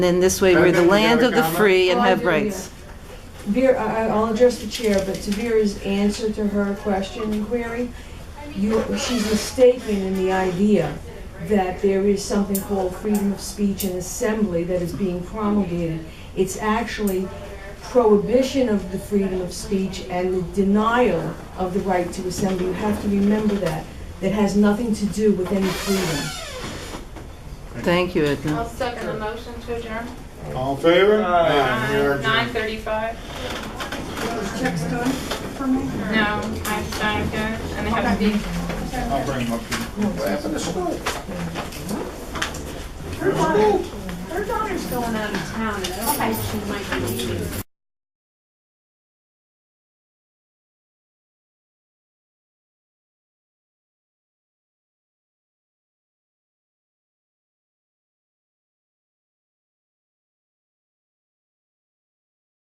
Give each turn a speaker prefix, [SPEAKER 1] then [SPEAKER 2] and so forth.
[SPEAKER 1] then this way, we're the land of the free and have
[SPEAKER 2] Well, Oh, I do,
[SPEAKER 1] rights.
[SPEAKER 2] yeah. Vera, I- I- I'll address the chair, but to Vera's answer to her question and query, you, she's mistaken in the idea that there is something called freedom of speech and assembly that is being promulgated. It's actually prohibition of the freedom of speech and the denial of the right to assembly. You have to remember that. That has nothing to do with any freedom.
[SPEAKER 1] Thank you, Edna.
[SPEAKER 3] I'll second the motion to adjourn.
[SPEAKER 4] All in favor? Aye. We are adjourned.
[SPEAKER 3] Nine thirty-five.
[SPEAKER 5] checks done for me?
[SPEAKER 3] No, I'm signing it, and they have to be
[SPEAKER 4] I'll bring them up here.
[SPEAKER 5] Her daughter, her daughter's going out of town, and I don't think she might be leaving.